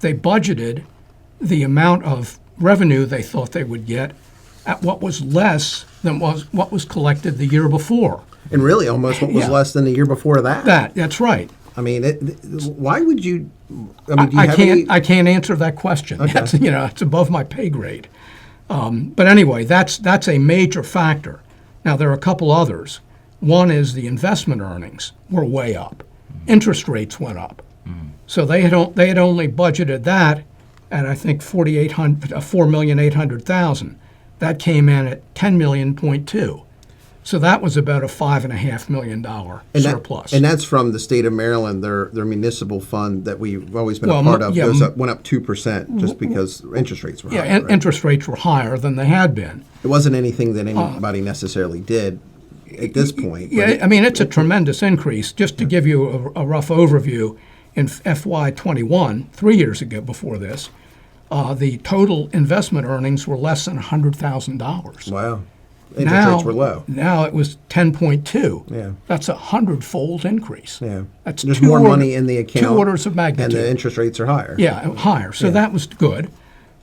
they budgeted the amount of revenue they thought they would get at what was less than was what was collected the year before. And really, almost what was Yeah. less than the year before that. That that's right. I mean, it, th- why would you? I mean, do you I have can't any? I can't answer that question. That's you know it's above my pay grade. Um, but anyway, that's that's a major factor. Now there are a couple others. One is the investment earnings were way up. Mm. Interest rates went up. So they had o- they had only budgeted that at I think forty eight hundred uh, four million eight hundred thousand. That came in at ten million point two. So that was about a five and a half million dollar and that- surplus. and that's from the state of Maryland. Their their municipal fund that we've always been Well, a mo- part of yeah, goes m- up, went up two percent just because interest rates were yeah, high. and right? interest rates were higher than they had been. it wasn't anything that anybody necessarily did at this point. but Uh, Yeah, I mean, it's a tremendous increase. Just to give you a, a rough overview, in FY21, three years ago before this, uh, the total investment earnings were less than $100,000. wow, interest now, rates were low. Now it was 10.2. Yeah. That's a hundredfold increase. Yeah, That's there's two more order- money in the account. Two orders of and magnitude. the interest rates are higher. Yeah, uh, higher. So that was good.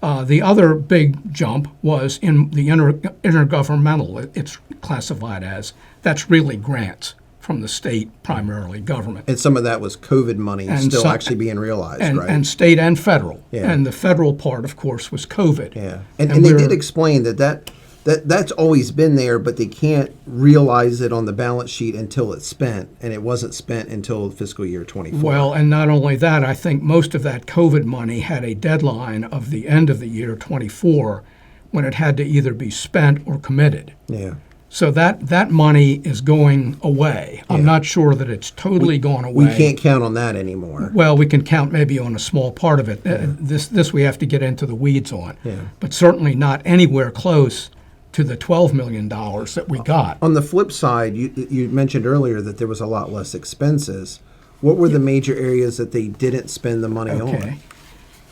Uh, the other big jump was in the inter- intergovernmental, it- it's classified as. That's really grants from the state, primarily government, and some of that was COVID money still some- actually being realized, and, right? and state and federal. Yeah. And the federal part, of course, was COVID. Yeah, and, and, they we're- did explain that, that that that's always been there, but they can't realize it on the balance sheet until it's spent, and it wasn't spent until fiscal year twenty four. Well, and not only that, I think most of that COVID money had a deadline of the end of the year 24 when it had to either be spent or committed. yeah, So that, that money is going away. I'm not sure that it's totally gone away. we can't count on that anymore. Well, we can count maybe on a small part of it. Uh, This, this we have to get into the weeds on. But certainly not anywhere close to the $12 million that we got. On the flip side, you you mentioned earlier that there was a lot less expenses. What were the major areas that they didn't spend the money Okay.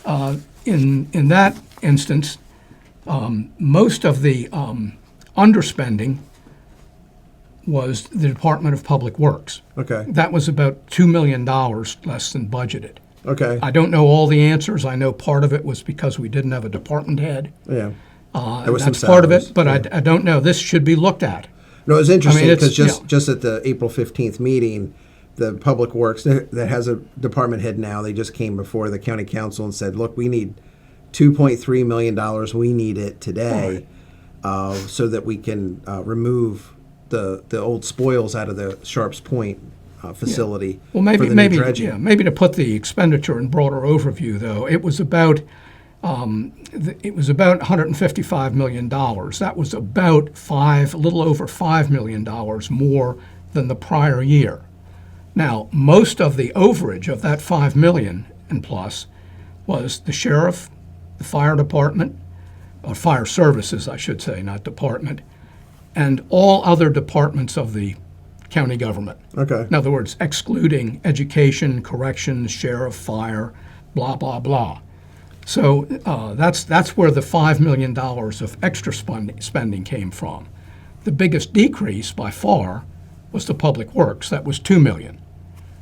Uh, In, in that instance, um, most of the um, underspending was the Department of Public Works. on? Okay, That was about $2 million less than budgeted. okay, I don't know all the answers. I know part of it was because we didn't have a department head. yeah. Uh, There was some that's part of salaries, it, but I, I don't know. This should be looked at. No, it was interesting it's- because just yeah. just at the April fifteenth meeting, the Public Works that that has a department head now, they just came before the county council and said, "Look, we need two point three million dollars. We need it today, uh, so that we can uh, remove the the old spoils out of the Sharps Point uh, facility Well, maybe for the maybe new dredging." yeah, maybe to put the expenditure in broader overview, though, it was about um, th- it was about 155 million dollars. That was about five, a little over five million dollars more than the prior year. Now, most of the overage of that five million and plus was the sheriff, the fire department, or fire services, I should say, not department, and all other departments of the county government. Okay. In other words, excluding education, corrections, sheriff, fire, blah, blah, blah. So uh, that's, that's where the $5 million of extra spending, spending came from. The biggest decrease by far was the public works, that was $2 million.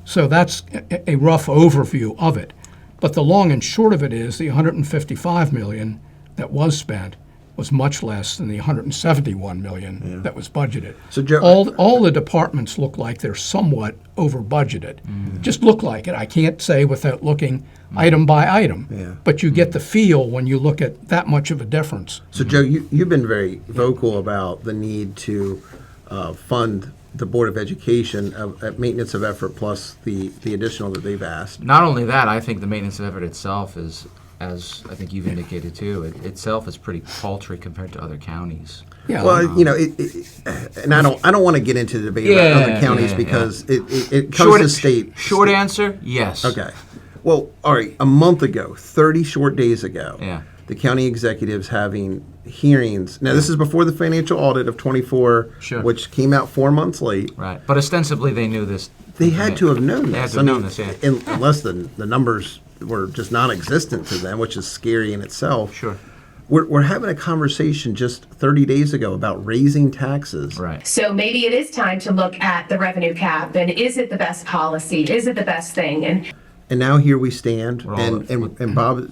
So that's a, a rough overview of it. But the long and short of it is the 155 million that was spent was much less than the 171 million that was budgeted. So Joe- all all the departments look like they're somewhat over budgeted. Just look like it. I can't say without looking item by item. Yeah. But you get the feel when you look at that much of a difference. So, Joe, you, you've been very vocal about the need to uh, fund the Board of Education of, at maintenance of effort plus the, the additional that they've asked. Not only that, I think the maintenance of effort itself is, as I think you've indicated too, it, itself is pretty paltry compared to other counties. Yeah. Well, you know, it, it, and I don't, I don't want to get into the debate about other Yeah, counties yeah, because It, it, it comes to state. Short state- answer, yes. Okay. Well, all right. A month ago, 30 short days ago, Yeah. the county executives having hearings. Now, this is before the financial audit of 24, Sure. which came out four months late. Right, but ostensibly they knew this. They had to have known this. Mm-hmm. They had to I have known mean, this, yeah. un- Unless the, the numbers were just non-existent to them, which is scary in itself. Sure. We're, we're having a conversation just 30 days ago about raising taxes. Right. So maybe it is time to look at the revenue cap and is it the best policy? Is it the best thing? And And now here we stand, We're all and, at- and, and Bob